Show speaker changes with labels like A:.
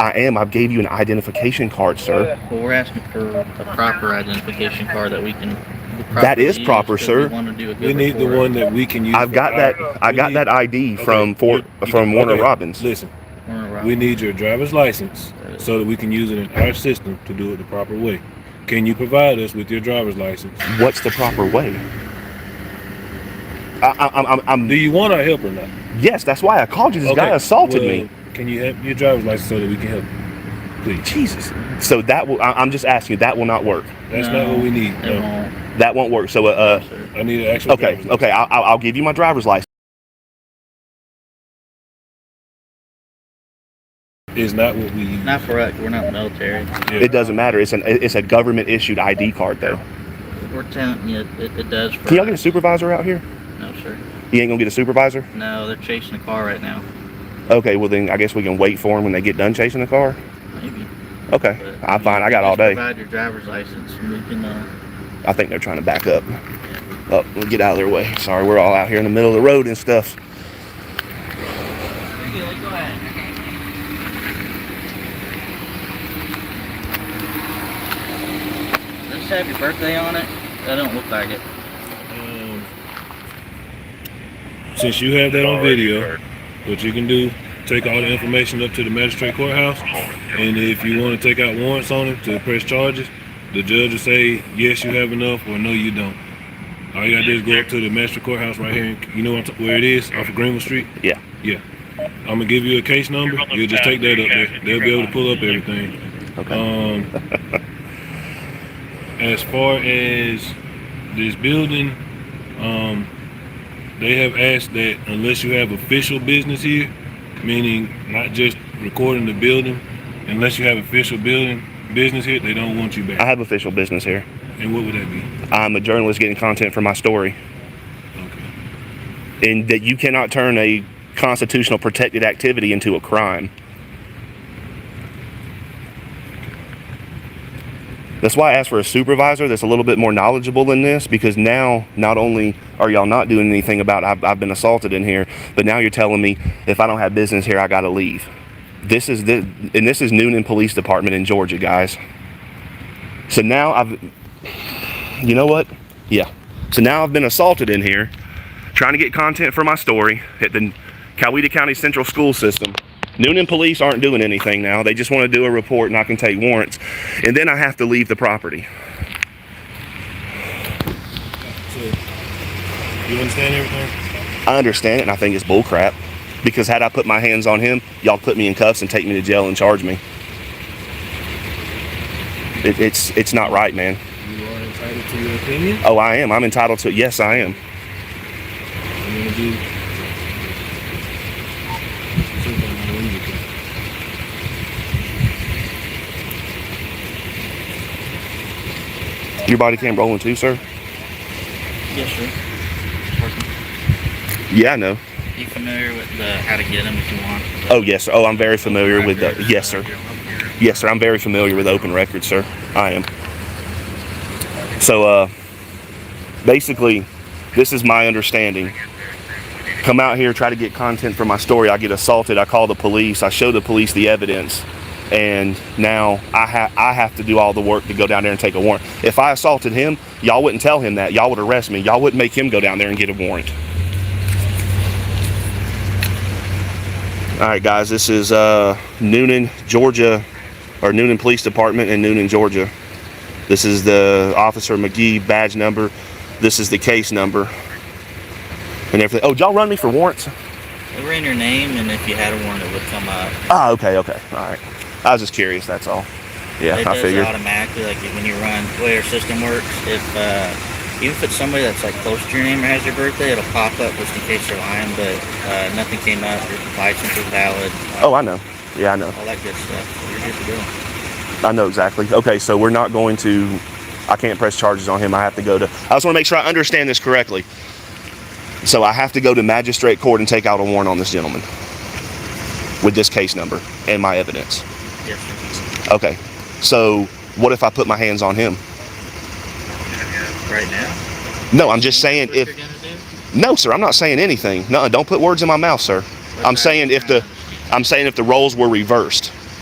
A: I am. I gave you an identification card, sir.
B: Well, we're asking for a proper identification card that we can.
A: That is
B: properly use
A: proper,
B: 'cause
A: sir.
B: We want to do a good
C: We need the
B: report.
C: one that we can use.
A: I've got that. I got that ID from Fort from Warner Robins.
C: Listen,
B: Warner Robins.
C: we need your driver's license so that we can use it in our system to do it the proper way. Can you provide us with your driver's license?
A: What's the proper way? I, I, I'm, I'm,
C: Do
A: I'm.
C: you want our help or not?
A: Yes, that's why I called you. This guy
C: Okay,
A: assaulted
C: well,
A: me.
C: Can you have your driver's license so that we can help? you? Please.
A: Jesus. So that will. I, I'm just asking. you, That will not work.
C: That's
B: No,
C: not what we need.
B: It
C: No.
B: won't,
A: That won't work. So, uh,
B: sir.
C: I need an
A: uh
C: actual.
A: okay,
C: driver's license.
A: okay. I'll, I'll I'll give you my driver's license.
C: It's not what we use.
B: Not for us. We're not military.
C: Yeah.
A: It doesn't matter. It's an it's a government issued ID card though.
B: We're telling you, it, it does for.
A: Can y'all get a
B: us.
A: supervisor out here?
B: No, sir.
A: You ain't gonna get a supervisor.
B: No, they're chasing a car right now.
A: Okay, well then I guess we can wait for him when they get done chasing the car.
B: Maybe.
A: Okay,
B: but-
A: I'm fine. I got all
B: Just
A: day.
B: Provide your driver's license. and We can. Uh,
A: I think they're trying to back up. Up, we'll get out of their way. Sorry, we're all out here in the middle of the road and stuff.
B: does this have your birthday on it? That don't look like it.
C: Um, Since you have that on video, what you can do, take all the information up to the magistrate courthouse, and if you want to take out warrants on him to press charges, the judge will say, yes, you have enough, or no, you don't. All you gotta do is go up to the magistrate courthouse right here, in- you know what I'm t- where it is, off of Greenville Street?
A: Yeah.
C: Yeah. I'm gonna give you a case number, you'll just take that up there, they'll be able to pull up everything.
A: Okay.
C: Um, as far as this building, um, they have asked that unless you have official business here, meaning not just recording the building, unless you have official building business here, they don't want you
A: I
C: back.
A: have official business here.
C: And what would that be?
A: I'm a journalist getting content for my story,
C: Okay.
A: and that you cannot turn a constitutional protected activity into a crime. That's why I asked for a supervisor that's a little bit more knowledgeable in this because now not only are y'all not doing anything about I've, I've been assaulted in here, but now you're telling me if I don't have business here, I got to leave. This is the and this is Noonan Police Department in Georgia, guys. So now I've, you know what? Yeah. So now I've been assaulted in here, trying to get content for my story at the Coweta County Central School System. Noonan police aren't doing anything now. They just want to do a report and I can take warrants. And then I have to leave the property.
C: So, you understand everything?
A: I understand it and I think it's bullcrap. Because had I put my hands on him, y'all put me in cuffs and take me to jail and charge me. It, it's it's not right, man.
C: You are entitled to your opinion.
A: Oh, I am. I'm entitled to it. Yes, I am.
C: I'm gonna do.
A: Your body cam rolling too, sir.
B: Yes, sir.
A: Yeah, I know.
B: You familiar with the how to get them if you want?
A: Oh yes. sir. Oh, I'm very familiar with the. Yes, sir. Yes, sir. I'm very familiar with open records, sir. I am. So, uh, basically, this is my understanding. Come out here, try to get content for my story. I get assaulted. I call the police. I show the police the evidence, and now I have I have to do all the work to go down there and take a warrant. If I assaulted him, y'all wouldn't tell him that. Y'all would arrest me. Y'all wouldn't make him go down there and get a warrant. All right, guys, this is uh, Noonan, Georgia, or Noonan Police Department in Noonan, Georgia. This is the Officer McGee badge number. This is the case number. And everything. Oh, did y'all run me for warrants?
B: It were in your name, and if you had a warrant, it would come up.
A: Ah, okay, okay. All right. I was just curious, that's all. Yeah,
B: it
A: I
B: does
A: figured.
B: it automatically, like when you run the way our system works. If uh, even if it's somebody that's like close to your name or has your birthday, it'll pop up just in case you're lying. But uh, nothing came up. Your license was valid.
A: Oh, I know. Yeah, I know.
B: all that good stuff. So you're good to go.
A: I know exactly. Okay, so we're not going to. I can't press charges on him. I have to go to. I just want to make sure I understand this correctly. So I have to go to magistrate court and take out a warrant on this gentleman with this case number and my evidence.
B: Yes, sir.
A: Okay, so what if I put my hands on him?
B: Right now.
A: No, I'm just saying
B: What
A: if.
B: you're gonna do?
A: No, sir, I'm not saying anything. No, don't put words in my mouth, sir. I'm saying if the. I'm saying if the roles were reversed.